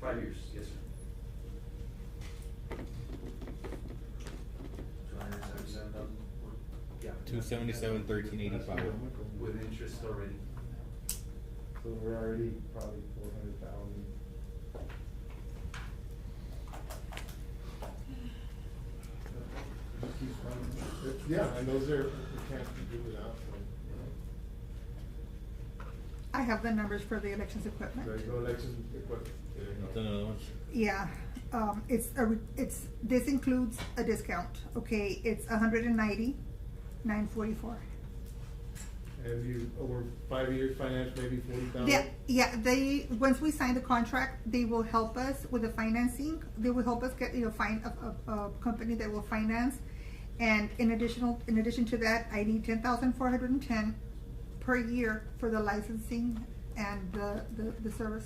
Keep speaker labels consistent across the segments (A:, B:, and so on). A: Five years, yes, sir.
B: Two hundred and seventy-seven thousand?
A: Yeah.
C: Two seventy-seven, thirteen eighty-five.
A: With interest already.
D: So we're already probably four hundred thousand. Yeah, and those are, we can't do without them.
E: I have the numbers for the elections equipment.
D: There's no elections equipment. There you go.
C: That's another one.
E: Yeah, um, it's a, re- it's, this includes a discount, okay, it's a hundred and ninety, nine forty-four.
D: And you, over five years, finance maybe forty thousand?
E: Yeah, yeah, they, once we sign the contract, they will help us with the financing, they will help us get, you know, find a, a, a company that will finance. And in additional, in addition to that, I need ten thousand four hundred and ten per year for the licensing and the, the, the service.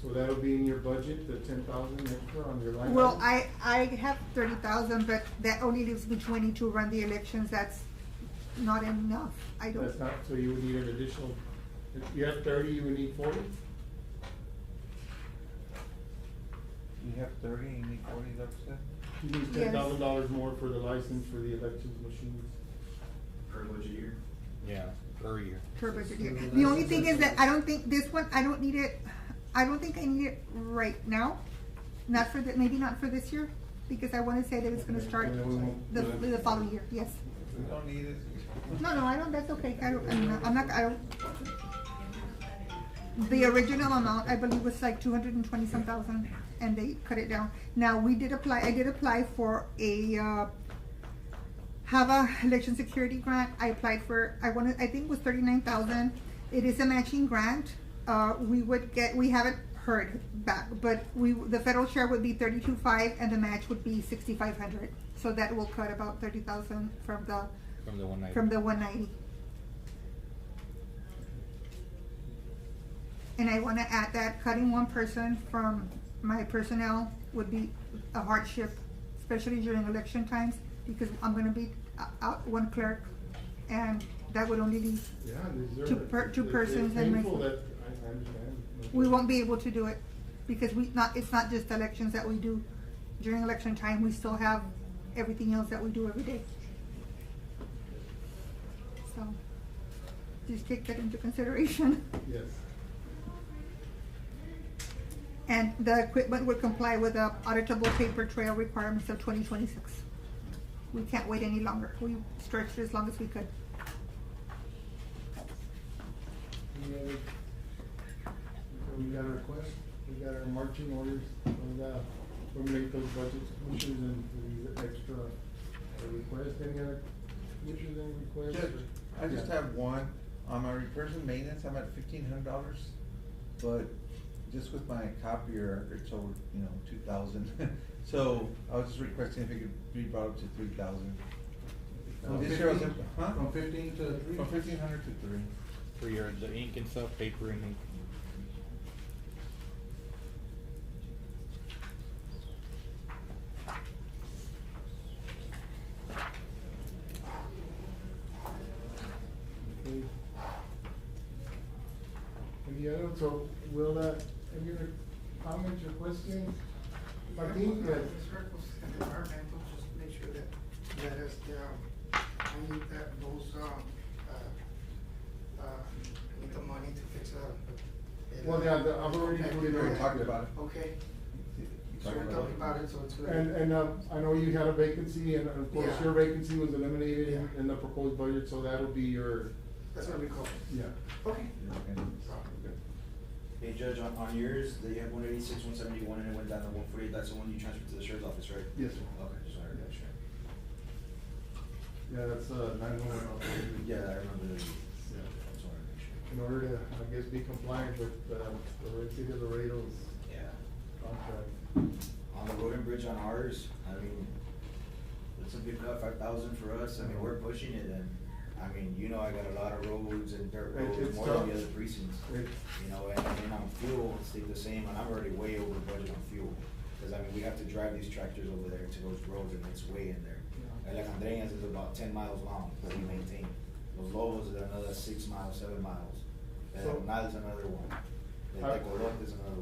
D: So that'll be in your budget, the ten thousand extra on your line?
E: Well,
D: item?
E: I, I have thirty thousand, but that only leaves me twenty to run the elections, that's not enough, I don't.
D: That's not, so you would need an additional, if you have thirty, you would need forty?
F: You have thirty and you need forty, is that what you said?
D: You need
E: Yes.
D: ten thousand dollars more for the license for the elections machines.
B: Per budget year?
C: Yeah, per year.
E: per budget year. The only thing is that I don't think, this one, I don't need it, I don't think I need it right now. Not for the, maybe not for this year, because I wanna say that it's gonna start
D: And then we won't-
E: the, the following year, yes.
F: We don't need it.
E: No, no, I don't, that's okay, I don't, I'm not, I'm not, I don't. The original amount, I believe, was like two hundred and twenty-some thousand, and they cut it down. Now, we did apply, I did apply for a, uh, HAVA election security grant, I applied for, I wanted, I think it was thirty-nine thousand. It is a matching grant, uh, we would get, we haven't heard back, but we, the federal share would be thirty-two five, and the match would be sixty-five hundred. So that will cut about thirty thousand from the,
C: From the one ninety.
E: from the one ninety. And I wanna add that cutting one person from my personnel would be a hardship, especially during election times, because I'm gonna be o- out one clerk, and that would only be,
D: Yeah, these are.
E: Two per- two
D: it's-
E: persons
D: It's
E: and
D: painful
E: myself.
D: that, I, I understand.
E: we won't be able to do it, because we not, it's not just elections that we do. During election time, we still have everything else that we do every day. So, just take that into consideration.
D: Yes.
E: And the equipment would comply with the auditable paper trail requirements of twenty twenty-six. We can't wait any longer. We stretched it as long as we could.
D: Any other- We got our request, we got our marching orders, we got, we make those budget issues and these extra requests, any other issues, any requests?
F: Judge, I just
D: Yeah.
F: have one, on my repairs and maintenance, I'm at fifteen hundred dollars, but just with my copier, it's over, you know, two thousand. So I was just requesting if it could be brought up to three thousand.
B: From
F: This year I was,
B: 15
F: at- huh?
B: From fifteen to three?
F: From fifteen hundred to three.
C: For your, the ink and stuff, paper and ink.
D: Okay. Any other, so will that, any other comments or questions? Martin, yes.
G: Circles and environmental, just make sure that, that is, um, I need that, those, um, uh, uh, need the money to fix up.
D: Well, yeah, the- I've already put it
F: We already
D: on.
F: talked about it.
G: Okay, so
F: Talked
G: we
F: about
G: talked
F: it.
G: about it, so it's good.
D: And, and, uh, I know you had a vacancy, and of course,
G: Yeah.
D: your vacancy was eliminated in-
G: Yeah.
D: in the proposed budget, so that'll be your,
G: That's what we call
D: yeah.
G: it. Okay.
F: Okay.
B: Hey Judge, on, on yours, they have one eighty-six, one seventy-one, and it went down to one forty-eight, that's the one you transferred to the sheriff's office, right?
D: Yes, sir.
B: Okay, just wanted to make sure.
D: Yeah, that's, uh, nine-one-one
B: Yeah, I remember that.
D: Yeah.
B: Just wanted to make sure.
D: In order to, I guess, be compliant with, uh, the Red City of Laredo's
B: Yeah.
D: contract.
B: On the road and bridge on ours, I mean, it's a big cut, five thousand for us, I mean, we're pushing it and, I mean, you know, I got a lot of roads and dirt
D: It-
B: roads,
D: it's
B: more than
D: tough.
B: the other precincts.
D: It-
B: You know, and, and on fuel, it stayed the same, and I'm already way over budget on fuel, cause I mean, we have to drive these tractors over there to those roads and it's way in there.
D: Yeah.
B: And like Andreas is about ten miles long that we maintain, Los Lobos is another six miles, seven miles, and
D: So-
B: Nal's another one, and
D: I-
B: Tecolote is another